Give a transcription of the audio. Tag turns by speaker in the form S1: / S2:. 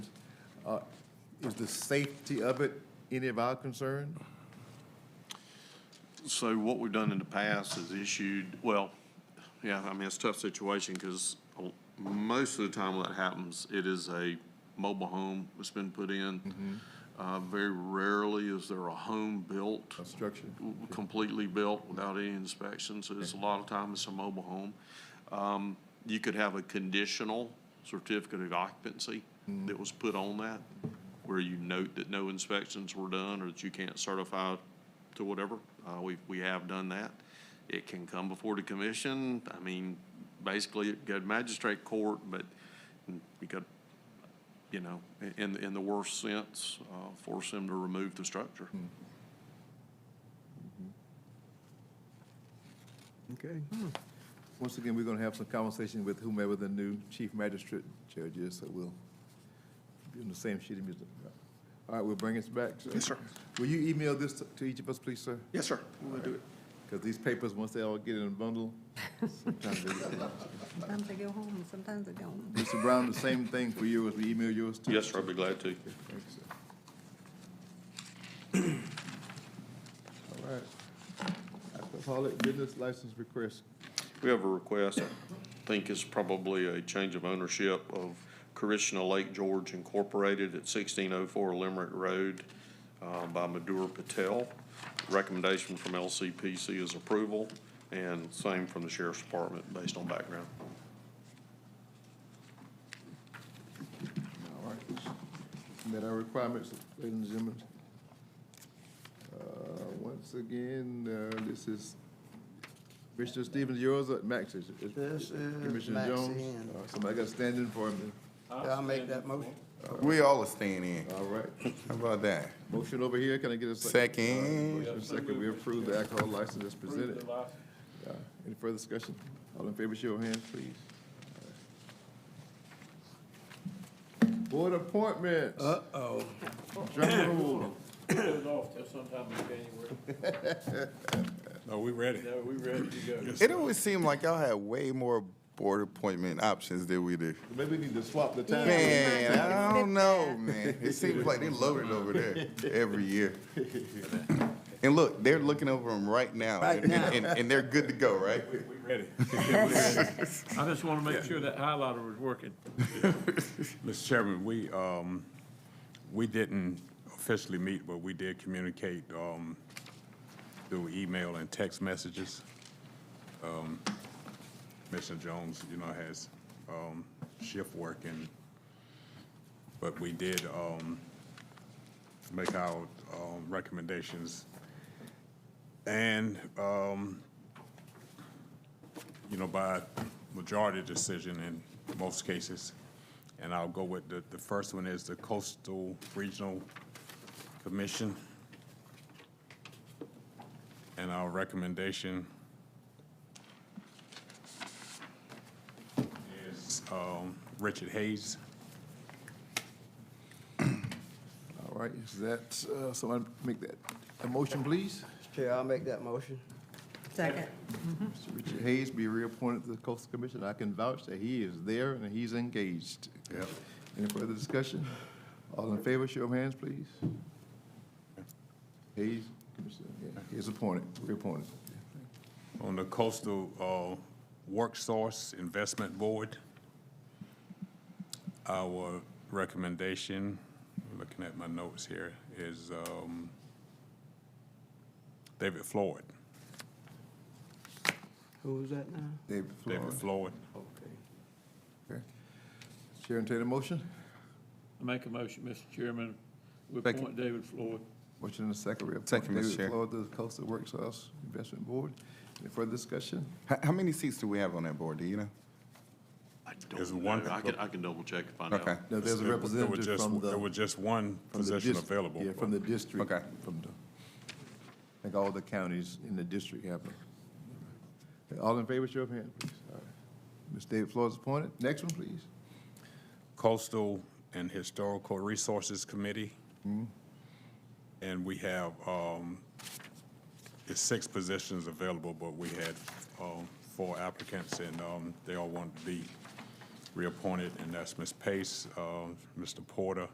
S1: Uh, Is the safety of it any of our concern?
S2: So what we've done in the past is issued, well, yeah, I mean, it's a tough situation because most of the time when that happens, it is a mobile home that's been put in. Uh, very rarely is there a home built,
S1: uh, Construction?
S2: completely built without any inspection. So it's a lot of time it's a mobile home. Um, you could have a conditional certificate of occupancy that was put on that, where you note that no inspections were done or that you can't certify to whatever. Uh, we, we have done that. It can come before the commission. I mean, basically it go to magistrate court, but you could, you know, in, in the worst sense, uh, force them to remove the structure.
S1: Okay. Hmm. Once again, we're gonna have some conversation with whomever the new chief magistrate judge is, so we'll be on the same sheet of music. All right, we'll bring us back, sir.
S3: Yes, sir.
S1: Will you email this to- to each of us, please, sir?
S3: Yes, sir. We'll do it.
S1: Because these papers, once they all get in a bundle, sometimes they get lost.
S4: Sometimes they go home, and sometimes they don't.
S1: Mr. Brown, the same thing for you as we email yours too?
S2: Yes, sir, I'd be glad to.
S1: Thank you, sir. All right. Alcoholic business license request.
S2: We have a request, I think it's probably a change of ownership of Krishna Lake George Incorporated at sixteen oh four Limerick Road uh, by Madhur Patel. Recommendation from LCPC is approval, and same from the Sheriff's Department based on background.
S1: All right. Met our requirements, ladies and gentlemen. Uh, Once again, uh, this is Commissioner Stevens, yours or Max's? It's-
S5: This is
S1: Commissioner
S5: Max's.
S1: Jones? All right, Somebody got to stand in for him.
S5: I'll make that motion.
S6: We all are staying in.
S1: then. All right.
S6: How about that?
S1: Motion over here, can I get a second?
S6: Second.
S1: Motion and second, we approve the alcohol license as presented. Uh, Any further discussion? All in favor, show your hands, please. Board appointments.
S5: Uh-oh.
S1: Drum roll.
S7: Put it off till sometime in January.
S3: No, we ready.
S7: No, we ready to go.
S6: It always seemed like y'all had way more board appointment options than we do.
S1: Maybe we need to swap the time.
S6: Man, I don't know, man. It seems like they loaded over there every year. And look, they're looking over them right now,
S5: Right
S6: and,
S5: now.
S6: and, and they're good to go, right?
S3: We ready.
S7: I just want to make sure that highlighter was working.
S3: Mr. Chairman, we, um, we didn't officially meet, but we did communicate, um, through email and text messages. Um, Commissioner Jones, you know, has, um, shift work and, but we did, um, make our, um, recommendations. And, um, you know, by majority decision in most cases. And I'll go with the, the first one is the Coastal Regional Commission. And our recommendation is, um, Richard Hayes.
S1: All right, is that, uh, someone make that, a motion, please?
S5: Chair, I'll make that motion.
S4: Second.
S1: Mr. Richard Hayes be reappointed to the Coastal Commission. I can vouch that he is there and he's engaged.
S3: Yep.
S1: Any further discussion? All in favor, show of hands, please. Hayes, Commissioner, yeah, he's appointed, reappointed.
S3: On the Coastal uh, Worksource Investment Board, our recommendation, looking at my notes here, is um, David Floyd.
S5: Who was that now?
S1: David
S3: David
S1: Flores.
S3: Floyd.
S5: Okay.
S1: Okay. Chair and take the motion.
S7: I make a motion, Mr. Chairman, we
S6: Thank you.
S7: appoint David Floyd.
S1: Motion and a second, reappoint
S6: Second, Mr.
S1: David
S6: Chair.
S1: Floyd to the Coastal Works House Investment Board. Any further discussion?
S6: How, how many seats do we have on that board? Do you know?
S2: I
S3: There's
S2: don't
S3: one-
S2: know, I can, I can double check and find out.
S6: Okay.
S1: No, there's a
S3: There was- there was
S1: representative
S3: just-
S1: from the.
S3: There was just one
S1: from the
S3: position
S1: dis-
S3: available.
S1: Yeah, from the district.
S6: Okay.
S1: From the, I think all the counties in the district have them. Okay, All in favor, show of hands, please. All right. Ms. David Flores appointed. Next one, please.
S3: Coastal and Historical Resources Committee. And we have, um, it's six positions available, but we had, um, four applicants and, um, they all wanted to be reappointed, and that's Ms. Pace, um, Mr. Porter,